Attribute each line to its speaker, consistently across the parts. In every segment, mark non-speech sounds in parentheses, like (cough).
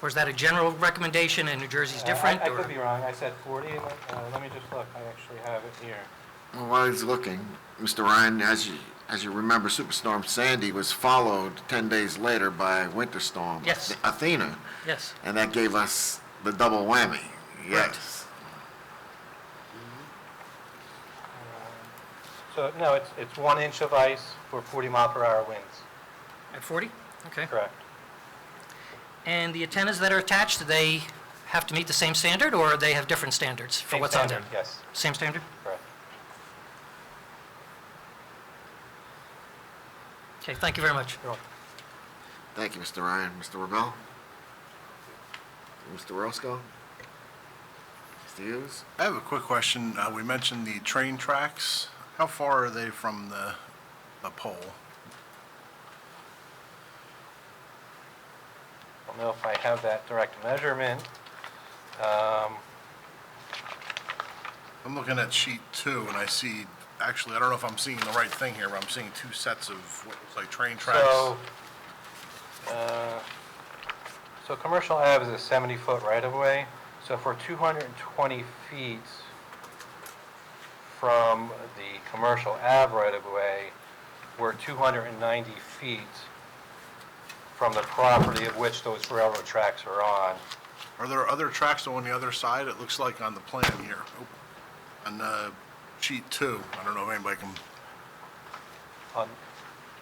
Speaker 1: Or is that a general recommendation and New Jersey's
Speaker 2: Uh, I-
Speaker 1: different?
Speaker 2: I
Speaker 1: or-
Speaker 2: could be wrong, I said 40, uh, let me just look, I actually have it here.
Speaker 3: Well, while he's looking, Mr. Ryan, as you, as you remember, Superstorm Sandy was followed 10 days later by Winter Storm
Speaker 1: Yes.
Speaker 3: Athena,
Speaker 1: Yes.
Speaker 3: and that gave us the double whammy. Yes.
Speaker 2: Um, So, no, it's, it's one inch of ice for 40 mile per hour winds,
Speaker 1: At 40? Okay.
Speaker 2: correct.
Speaker 1: And the antennas that are attached, do they have to meet the same standard, or they have different standards for
Speaker 2: Same
Speaker 1: what's on there?
Speaker 2: standard, Yes,
Speaker 1: Same standard?
Speaker 2: correct.
Speaker 1: Okay, thank you very much.
Speaker 3: Thank you, Mr. Ryan. Mr. Rebel? Mr. Roscoe? Mr. Hughes?
Speaker 4: I have a quick question. Uh, We mentioned the train tracks. How far are they from the, the pole?
Speaker 2: I don't know if I have that direct measurement. Um,
Speaker 4: I'm looking at sheet two, and I see, actually, I don't know if I'm seeing the right thing here, but I'm seeing two sets of what looks like train tracks.
Speaker 2: So, uh, so Commercial Ave is a 70-foot right-of-way, so if we're 220 feet from the Commercial Ave right-of-way, we're 290 feet from the property of which those railroad tracks are on.
Speaker 4: Are there other tracks on the other side? It looks like on the plan here. Oh, On uh, sheet two, I don't know if anybody can,
Speaker 2: On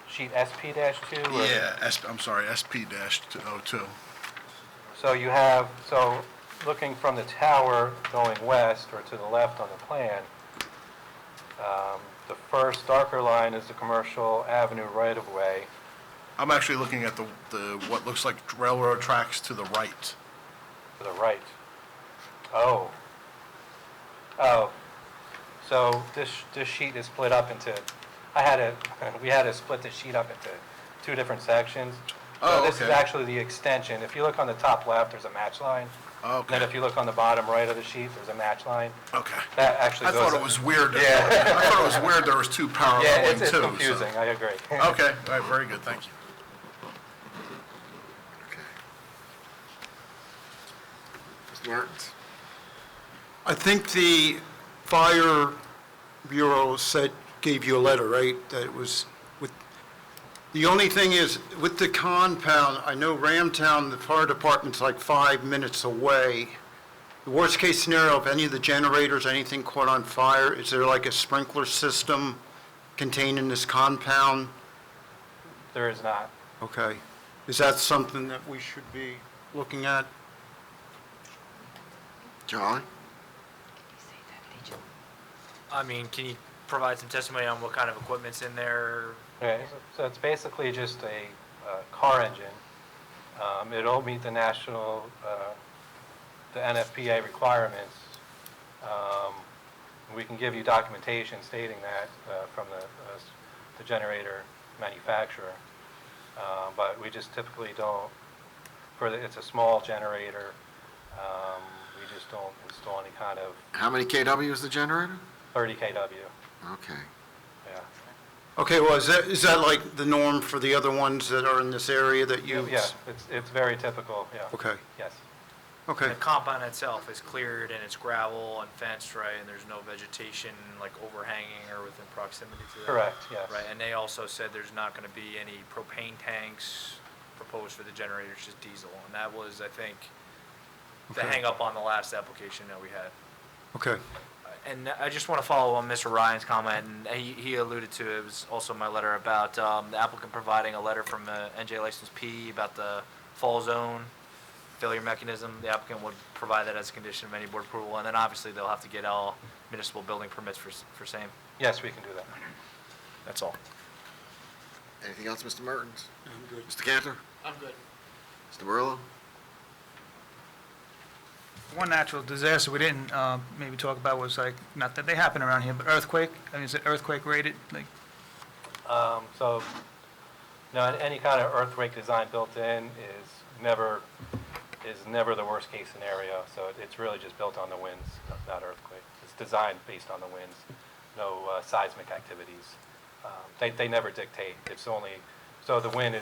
Speaker 2: sheet SP-2? or-
Speaker 4: yeah, S- I'm sorry, SP dash two oh two.
Speaker 2: So you have, so looking from the tower going west or to the left on the plan, um, the first darker line is the Commercial Avenue right-of-way.
Speaker 4: I'm actually looking at the, the, what looks like railroad tracks to the right.
Speaker 2: To the right. Oh. Oh. So this, this sheet is split up into, I had a, (laughs) we had to split this sheet up into two different sections. So
Speaker 4: Oh,
Speaker 2: This is
Speaker 4: okay.
Speaker 2: actually the extension. If you look on the top left, there's a match line. And Then
Speaker 4: Okay,
Speaker 2: if you look on the bottom right of the sheet, there's a match line.
Speaker 4: okay.
Speaker 2: That actually
Speaker 4: I
Speaker 2: goes.
Speaker 4: thought it was weird. that-
Speaker 2: Yeah.
Speaker 4: I thought it was weird there was two
Speaker 2: Yeah,
Speaker 4: paralleling
Speaker 2: it's
Speaker 4: too.
Speaker 2: it's
Speaker 4: so-
Speaker 2: confusing, I agree. (laughs)
Speaker 4: Okay, all right, very good, thank you.
Speaker 3: Okay. Mr. Martins?
Speaker 5: I think the fire bureau said, gave you a letter, right? That it was with, the only thing is, with the compound, I know Ramtown, the fire department's like five minutes away. The worst-case scenario, if any of the generators, anything caught on fire, is there like a sprinkler system contained in this compound?
Speaker 2: There is not.
Speaker 5: Okay. Is that something that we should be looking at?
Speaker 3: Charlie?
Speaker 6: I mean, can you provide some testimony on what kind of equipment's in there?
Speaker 2: Okay, so it's basically just a uh, car engine. Um, It'll meet the national, uh, the NFPA requirements. Um, We can give you documentation stating that uh, from the, uh, s- the generator manufacturer. Uh, But we just typically don't, for, the- it's a small generator. Um, We just don't install any kind of
Speaker 3: How many KW is the generator?
Speaker 2: 30 kW,
Speaker 3: Okay.
Speaker 2: yeah.
Speaker 5: Okay, well, is that, is that like the norm for the other ones that are in this area that you?
Speaker 2: Yeah, it's, it's very typical, yeah.
Speaker 5: Okay,
Speaker 2: Yes.
Speaker 5: okay,
Speaker 6: The compound itself is cleared and it's gravel and fenced, right, and there's no vegetation like overhanging or within proximity to that?
Speaker 2: Correct, yes.
Speaker 6: Right, and they also said there's not gonna be any propane tanks proposed for the generators, just diesel, and that was, I think, the
Speaker 5: Okay.
Speaker 6: hangup on the last application that we had. Uh,
Speaker 5: okay.
Speaker 6: And I just want to follow on Mr. Ryan's comment, and he, he alluded to, it was also my letter about um, the applicant providing a letter from uh, NJ License P about the fall zone failure mechanism. The applicant would provide that as a condition of any board approval, and then obviously they'll have to get all municipal building permits for, s- for same.
Speaker 2: Yes, we can do that.
Speaker 6: That's all.
Speaker 3: Anything else, Mr. Mertens? I'm good. Mr. Cantor? I'm good. Mr. Burlow?
Speaker 7: One natural disaster we didn't uh, maybe talk about was like, not that they happen around here, but earthquake. I mean, is it earthquake rated? Like,
Speaker 2: Um, So, no, an- any kind of earthquake design built in is never, is never the worst-case scenario. So it- it's really just built on the winds, not- not earthquake. It's designed based on the winds, no uh, seismic activities. Um, They, they never dictate. It's only, so the wind is.